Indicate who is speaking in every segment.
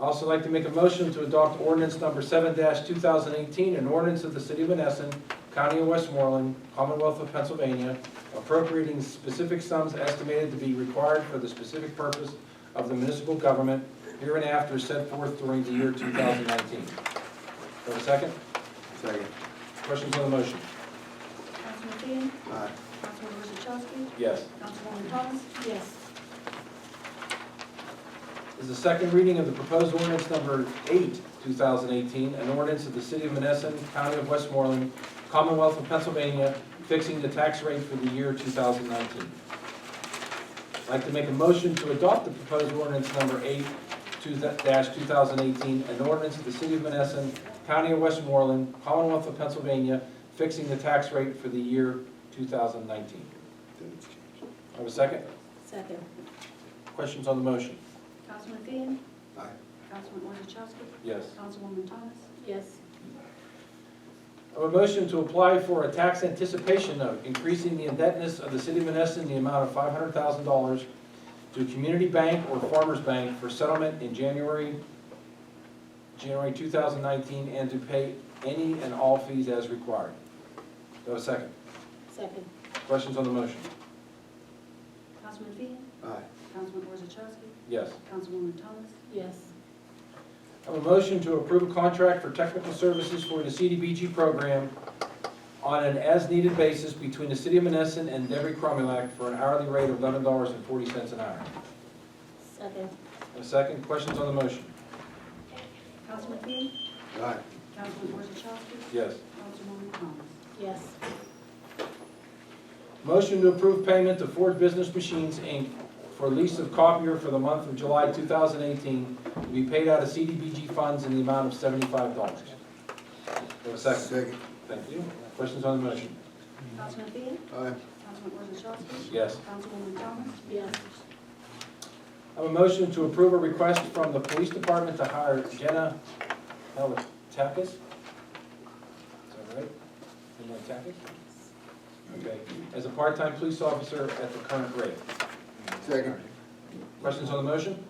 Speaker 1: I'd also like to make a motion to adopt ordinance number seven two thousand eighteen, an ordinance of the city of Menneson, county of Westmoreland, Commonwealth of Pennsylvania, appropriating specific sums estimated to be required for the specific purpose of the municipal government hereinafter set forth during the year two thousand nineteen. Do I have a second?
Speaker 2: Second.
Speaker 1: Questions on the motion?
Speaker 3: Councilman Finn,
Speaker 2: Aye.
Speaker 3: Councilwoman Wozzachowski,
Speaker 1: Yes.
Speaker 3: Councilwoman Thomas,
Speaker 4: yes,
Speaker 1: is the second reading of the proposed ordinance number eight, two thousand eighteen, an ordinance of the city of Monessen, county of Westmoreland, Commonwealth of Pennsylvania, fixing the tax rate for the year two thousand nineteen. I'd like to make a motion to adopt the proposed ordinance number eight, two two thousand eighteen, an ordinance of the city of Monessen, county of Westmoreland, Commonwealth of Pennsylvania, fixing the tax rate for the year two thousand nineteen.
Speaker 2: Then it's changed.
Speaker 1: Have a second?
Speaker 4: second,
Speaker 1: Questions on the motion?
Speaker 3: Councilman Finn,
Speaker 2: Aye.
Speaker 3: Councilwoman Wozzachowski,
Speaker 1: Yes.
Speaker 3: Councilwoman Thomas,
Speaker 4: yes,
Speaker 1: I have a motion to apply for a tax anticipation note, increasing the indebtedness of the city of Monessen in the amount of five hundred thousand dollars to Community Bank or Farmers Bank for settlement in January, January two thousand nineteen, and to pay any and all fees as required. Do I have a second?
Speaker 4: second,
Speaker 1: Questions on the motion?
Speaker 3: Councilman Finn,
Speaker 2: Aye.
Speaker 3: Councilwoman Wozzachowski,
Speaker 1: Yes.
Speaker 3: Councilwoman Thomas,
Speaker 4: yes,
Speaker 1: I have a motion to approve a contract for technical services for the CDBG program on an as-needed basis between the city of Monessen and Debbie Cromulac for an hourly rate of eleven dollars and forty cents an hour.
Speaker 4: second,
Speaker 1: And a second, questions on the motion?
Speaker 3: Councilman Finn,
Speaker 2: Aye.
Speaker 3: Councilwoman Wozzachowski,
Speaker 1: Yes.
Speaker 3: Councilwoman Thomas,
Speaker 4: yes,
Speaker 1: Motion to approve payment to Ford Business Machines, Inc. for lease of copier for the month of July 2018 to be paid out of CDBG funds in the amount of $75. Do I have a second?
Speaker 2: Second.
Speaker 1: Thank you. Questions on the motion?
Speaker 3: Councilman Finn,
Speaker 2: Aye.
Speaker 3: Councilwoman Wozzachowski,
Speaker 1: Yes.
Speaker 3: Councilwoman Thomas,
Speaker 4: yes,
Speaker 1: I have a motion to approve a request from the police department to hire Jenna Helitakis. Is that right? Helitakis? Okay, as a part-time police officer at the current rate.
Speaker 2: Second.
Speaker 1: Questions on the motion?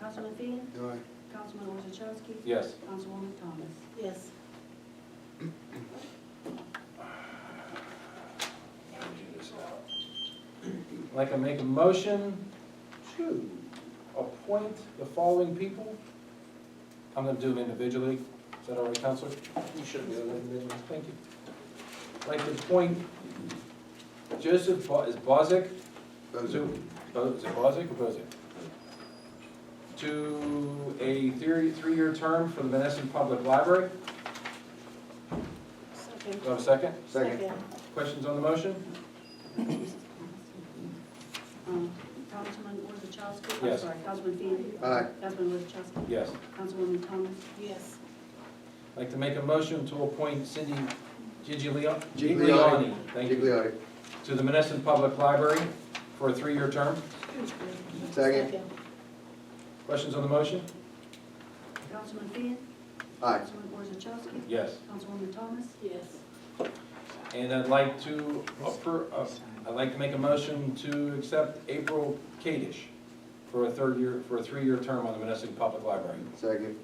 Speaker 3: Councilman Finn,
Speaker 2: Aye.
Speaker 3: Councilwoman Wozzachowski,
Speaker 1: Yes.
Speaker 3: Councilwoman Thomas,
Speaker 4: yes,
Speaker 1: I'd Like I make a motion to appoint the following people. I'm gonna do them individually. Is that all right, Counselor? You should do them individually. Thank you. I'd Like to appoint Joseph, Bo- is Bozick,
Speaker 2: Those
Speaker 1: to, Bo- is it Bozick or Bozick? To a three, three-year term for the Menneson Public Library.
Speaker 4: second,
Speaker 1: Do I have a second?
Speaker 2: Second.
Speaker 1: Questions on the motion?
Speaker 3: Um, Councilman Wozzachowski, I'm
Speaker 1: Yes.
Speaker 3: sorry, Councilman Finn,
Speaker 2: Aye.
Speaker 3: Councilman Wozzachowski,
Speaker 1: Yes.
Speaker 3: Councilwoman Thomas,
Speaker 4: yes,
Speaker 1: I'd Like to make a motion to appoint Cindy Giglio-
Speaker 2: Gigliani.
Speaker 1: Gigliani, thank you,
Speaker 2: Jiggly aye.
Speaker 1: to the Menneson Public Library for a three-year term.
Speaker 2: Second.
Speaker 1: Questions on the motion?
Speaker 3: Councilman Finn,
Speaker 2: Aye.
Speaker 3: Councilman Wozzachowski,
Speaker 1: Yes.
Speaker 3: Councilwoman Thomas,
Speaker 4: yes,
Speaker 1: And I'd like to, appro- uh, I'd like to make a motion to accept April Kadish for a third year, for a three-year term on the Menneson Public Library.
Speaker 2: Second.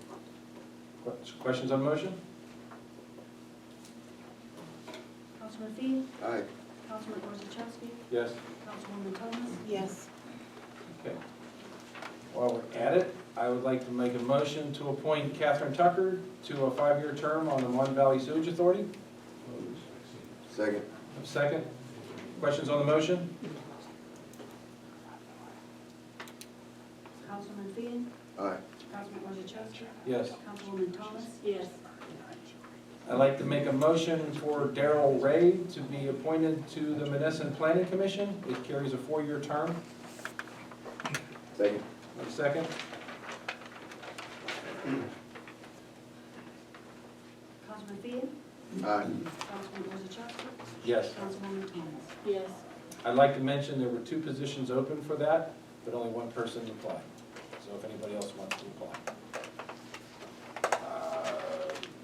Speaker 1: Que- Questions on the motion?
Speaker 3: Councilman Finn,
Speaker 2: Aye.
Speaker 3: Councilman Orzachowski,
Speaker 1: Yes.
Speaker 3: Councilwoman Thomas,
Speaker 4: yes,
Speaker 1: Okay. While we're at it, I would like to make a motion to appoint Catherine Tucker to a five-year term on the Mon Valley Sewage Authority.
Speaker 2: Second.
Speaker 1: Second. Questions on the motion?
Speaker 3: Councilman Finn,
Speaker 2: Aye.
Speaker 3: Councilman Orzachowski,
Speaker 1: Yes.
Speaker 3: Councilwoman Thomas,
Speaker 4: yes,
Speaker 1: I'd like to make a motion for Daryl Ray to be appointed to the Menneson Planning Commission. It carries a four-year term.
Speaker 2: Second.
Speaker 1: Have a Second.
Speaker 3: Councilman Finn,
Speaker 2: Aye.
Speaker 3: Councilman Orzachowski,
Speaker 1: Yes.
Speaker 3: Councilwoman Thomas,
Speaker 4: yes,
Speaker 1: I'd like to mention there were two positions open for that, but only one person applied. So if anybody else wants to apply. Uh,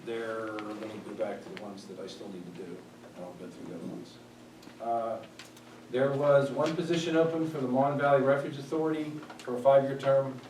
Speaker 1: There, let me go back to the ones that I still need to do. I'll go through the other ones. Uh, There was one position open for the Mon Valley Refuge Authority for a five-year term.